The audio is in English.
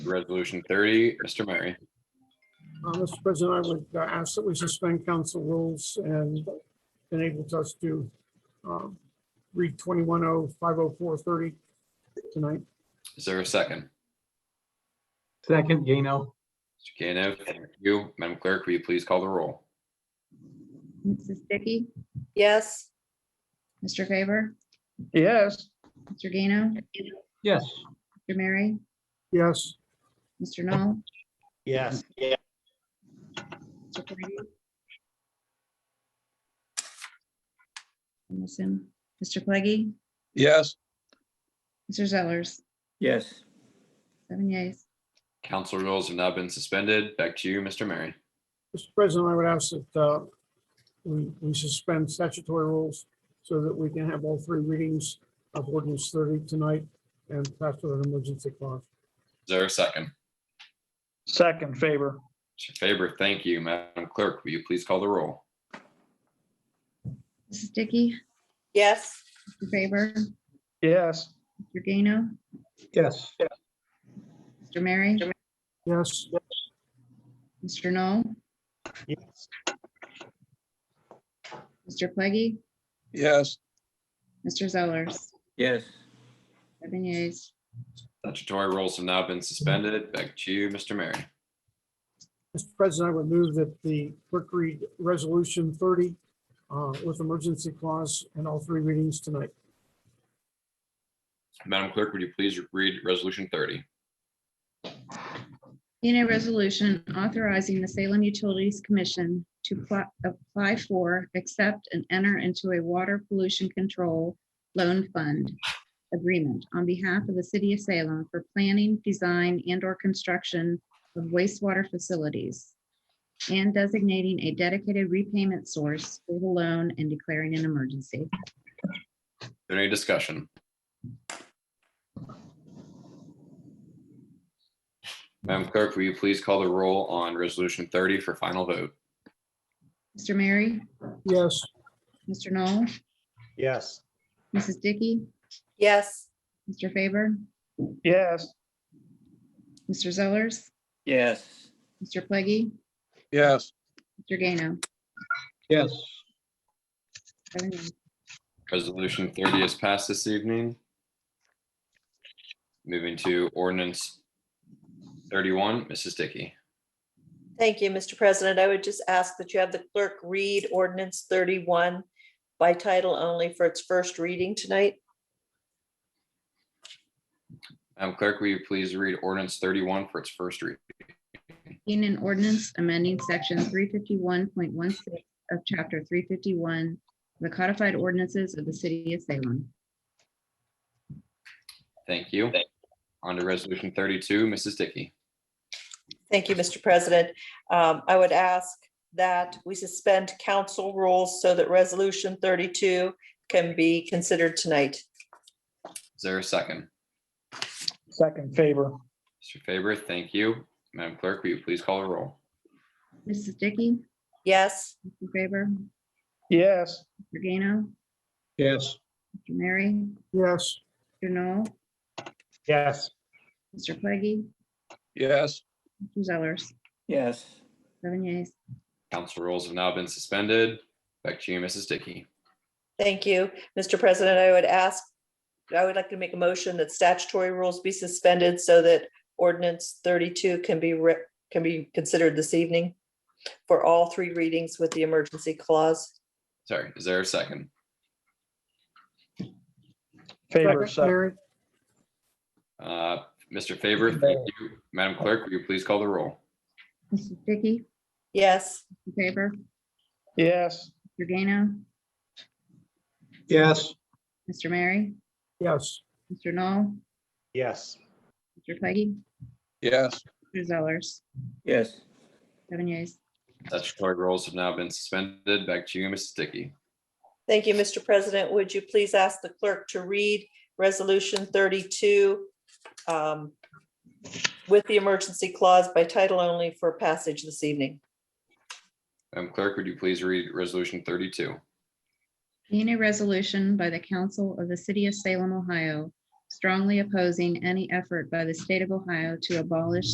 resolution thirty. Mr. Murray, Uh, Mr. President, I would uh, ask that we suspend council rules and enables us to um, read 21050430 tonight. is there a second? Second, Gano. Mr. Gano, thank you. Madam Clerk, will you please call the roll? Mrs. Dickey, yes, Mr. Graber, yes, Mr. Gano, Yes, Mr. Mary, Yes, Mr. Knoll, yes, Mr. Brady. I miss him. Mr. Pleggy, yes, Mr. Zellers, yes, seven yeas. Council rules have now been suspended. Back to you, Mr. Murray. Mr. President, I would ask that uh, we we suspend statutory rules so that we can have all three readings of ordinance 30 tonight and pass with an emergency clause. Is there a second? second favor, Mr. Faber, thank you. Madam Clerk, will you please call the roll? Mrs. Dickey, yes, Mr. Graber, yes, Mr. Gano, yes, Mr. Mary, Yes, Mr. Knoll. Mr. Pleggy, yes, Mr. Zellers, yes, seven yeas. Statutory rules have now been suspended. Back to you, Mr. Murray. Mr. President, I would move that the clerk read Resolution 30 uh, with emergency clause and all three readings tonight. Madam Clerk, would you please read Resolution thirty? In a resolution authorizing the Salem Utilities Commission to pl- apply for, accept, and enter into a water pollution control loan fund agreement on behalf of the city of Salem for planning, design, and/or construction of wastewater facilities, and designating a dedicated repayment source for the loan and declaring an emergency. Is there Any discussion? Madam Clerk, will you please call the roll on Resolution 30 for final vote? Mr. Mary, Yes, Mr. Knoll, yes, Mrs. Dickey, yes, Mr. Faber, yes, Mr. Zellers, yes, Mr. Pleggy, yes, Mr. Gano. yes. Seven yeas. Resolution 30 is passed this evening. Moving to ordinance 31, Mrs. Dickey. thank you, Mr. President. I would just ask that you have the clerk read ordinance thirty-one by title only for its first reading tonight. Madam Clerk, will you please read ordinance 31 for its first read? In an ordinance amending section three fifty-one point one six of chapter three fifty-one, the codified ordinances of the city of Salem. Thank you. On to Resolution 32, Mrs. Dickey. Thank you, Mr. President. Um, I would ask that we suspend council rules so that resolution thirty-two can be considered tonight. Is there a second? second favor, Mr. Faber, thank you. Madam Clerk, will you please call the roll? Mrs. Dickey, Yes, Mr. Faber, yes, Mr. Gano, Yes. Mr. Mary, yes, Mr. Knoll, Yes. Mr. Pleggy, yes, Mr. Zellers, yes, seven yeas. Council rules have now been suspended. Back to you, Mrs. Dickey. thank you, Mr. President. I would ask, I would like to make a motion that statutory rules be suspended so that ordinance thirty-two can be re, can be considered this evening for all three readings with the emergency clause. Sorry, is there a second? favor, Second, second, Mary? Uh, Mr. Favor, thank you. Madam Clerk, will you please call the roll? Mrs. Dickey, Yes, Mr. Faber, yes, Mr. Gano, Yes. Mr. Mary, Yes. Mr. Knoll, yes, Mr. Pleggy, yes, Mr. Zellers, yes, seven yeas. Statutory rules have now been suspended. Back to you, Mrs. Dickey. thank you, Mr. President. Would you please ask the clerk to read resolution thirty-two um, with the emergency clause by title only for passage this evening? Madam Clerk, would you please read Resolution 32? In a resolution by the Council of the City of Salem, Ohio, strongly opposing any effort by the state of Ohio to abolish